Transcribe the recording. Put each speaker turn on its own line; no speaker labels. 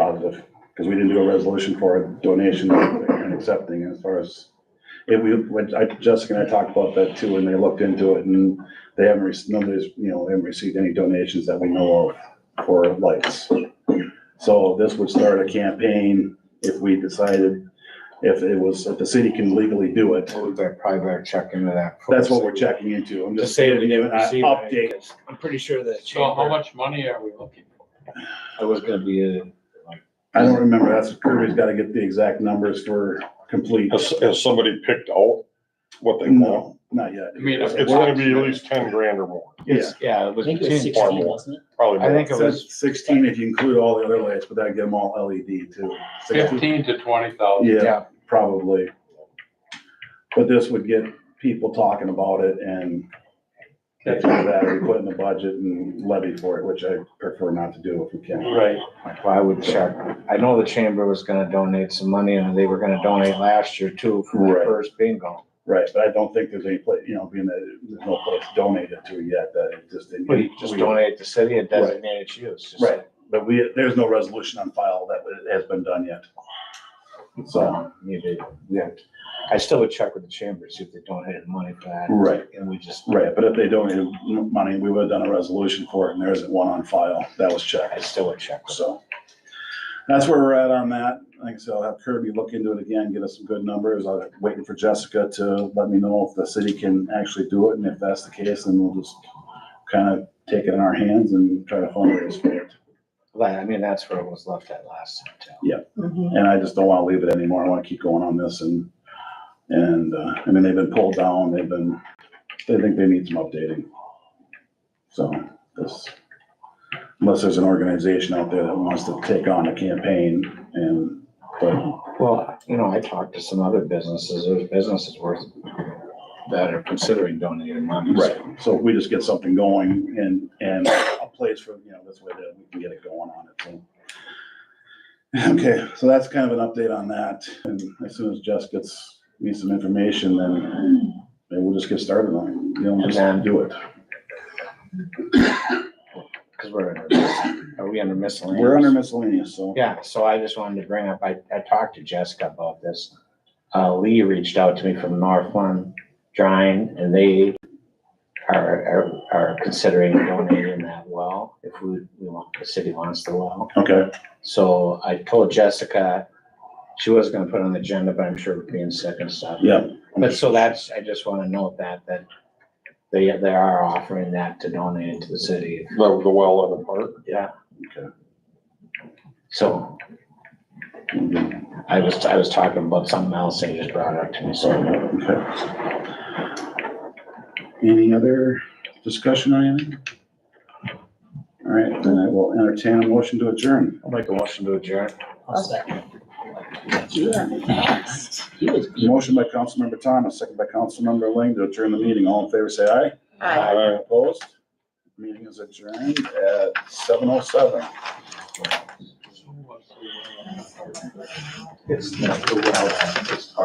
positive, because we didn't do a resolution for a donation and accepting as far as. It, we, when I, Jessica and I talked about that too, and they looked into it and they haven't, rec- nobody's, you know, haven't received any donations that we know of for lights. So this would start a campaign if we decided, if it was, if the city can legally do it.
Well, We better, probably better check into that.
That's what we're
first.
checking into. I'm
To
just
say that we
giving an
didn't receive
update.
it, I'm pretty sure that
So how
chamber,
much money are we looking for?
it was gonna be a,
I don't remember. That's, Kirby's gotta get the exact numbers for complete.
Has, has somebody picked out what they want?
No, not yet.
I mean,
It's gonna be at least ten grand or more,
Yeah.
yeah, it
I
was
think it was
between,
or
sixteen,
more,
wasn't it?
probably
I
more.
think it was,
Says sixteen if you include all the other lights, but that'd get them all LED too. 16
Fifteen to twenty thousand.
Yeah,
Yeah.
probably. But this would get people talking about it and that's why that we put in the budget and levy for it, which I prefer not to do if we can.
Right.
well, I would check. I know the chamber was gonna donate some money and they were gonna donate last year too for
Right.
the first bingo.
Right, but I don't think there's any place, you know, being that there's no place donated to yet that it just didn't.
But you just donate to city and
Right.
designate its use. Just-
Right. But we, there's no resolution on file that has been done yet. So,
So, you did, yeah. I still would check with the chamber, see if they donated money for that.
right,
And we just,
right, but if they donated money, we would have done a resolution for it and there isn't one on file. That was checked.
I still would check. with them.
So that's where we're at on that. Like I said, I'll have Kirby look into it again, get us some good numbers. I'm waiting for Jessica to let me know if the city can actually do it. And if that's the case, then we'll just kind of take it in our hands and try to fundraise for it.
Like, I mean, that's where it was left at last time too.
And I just don't want to leave it anymore. I want to keep going on this and, and, uh, I mean, they've been pulled down. They've been, they think they need some updating. So this, unless there's an organization out there that wants to take on a campaign and, but
Well, you know, I talked to some other businesses, there's businesses worth that are considering donating money.
Right, so if we just get something going and, and a place for, you know, this way that we can get it going on it, so. Okay, so that's kind of an update on that, and as soon as Jess gets me some information, then maybe we'll just get started on it, you know, just do it.
Cause we're, under- are we under miscellaneous?
We're under miscellaneous, so,
Yeah, so I just wanted to bring up, I, I talked to Jessica about this. Uh, Lee reached out to me from Northland Drying and they are, are, are considering donating that well, if we, we want, the city wants the well.
okay,
So I told Jessica, she was gonna put it on the agenda, but I'm sure we're being sick and stuff.
yeah,
But so that's, I just wanna note that, that they, they are offering that to donate it to the city,
That was the well in the park.
yeah.
Okay.
So I was, I was talking about something else and you just brought it up to me,
so,
so.
okay. Any other discussion or anything? All right, then I will entertain a motion to adjourn.
I'll make a motion to adjourn.
I'll second. You are fast. He was beat.
Motion by Councilmember Thomas, second by Councilmember Ling to adjourn the meeting. All in favor, say aye.
Aye.
Opposed? Meeting is adjourned at seven oh seven.
So what's the-
It's not the well, it's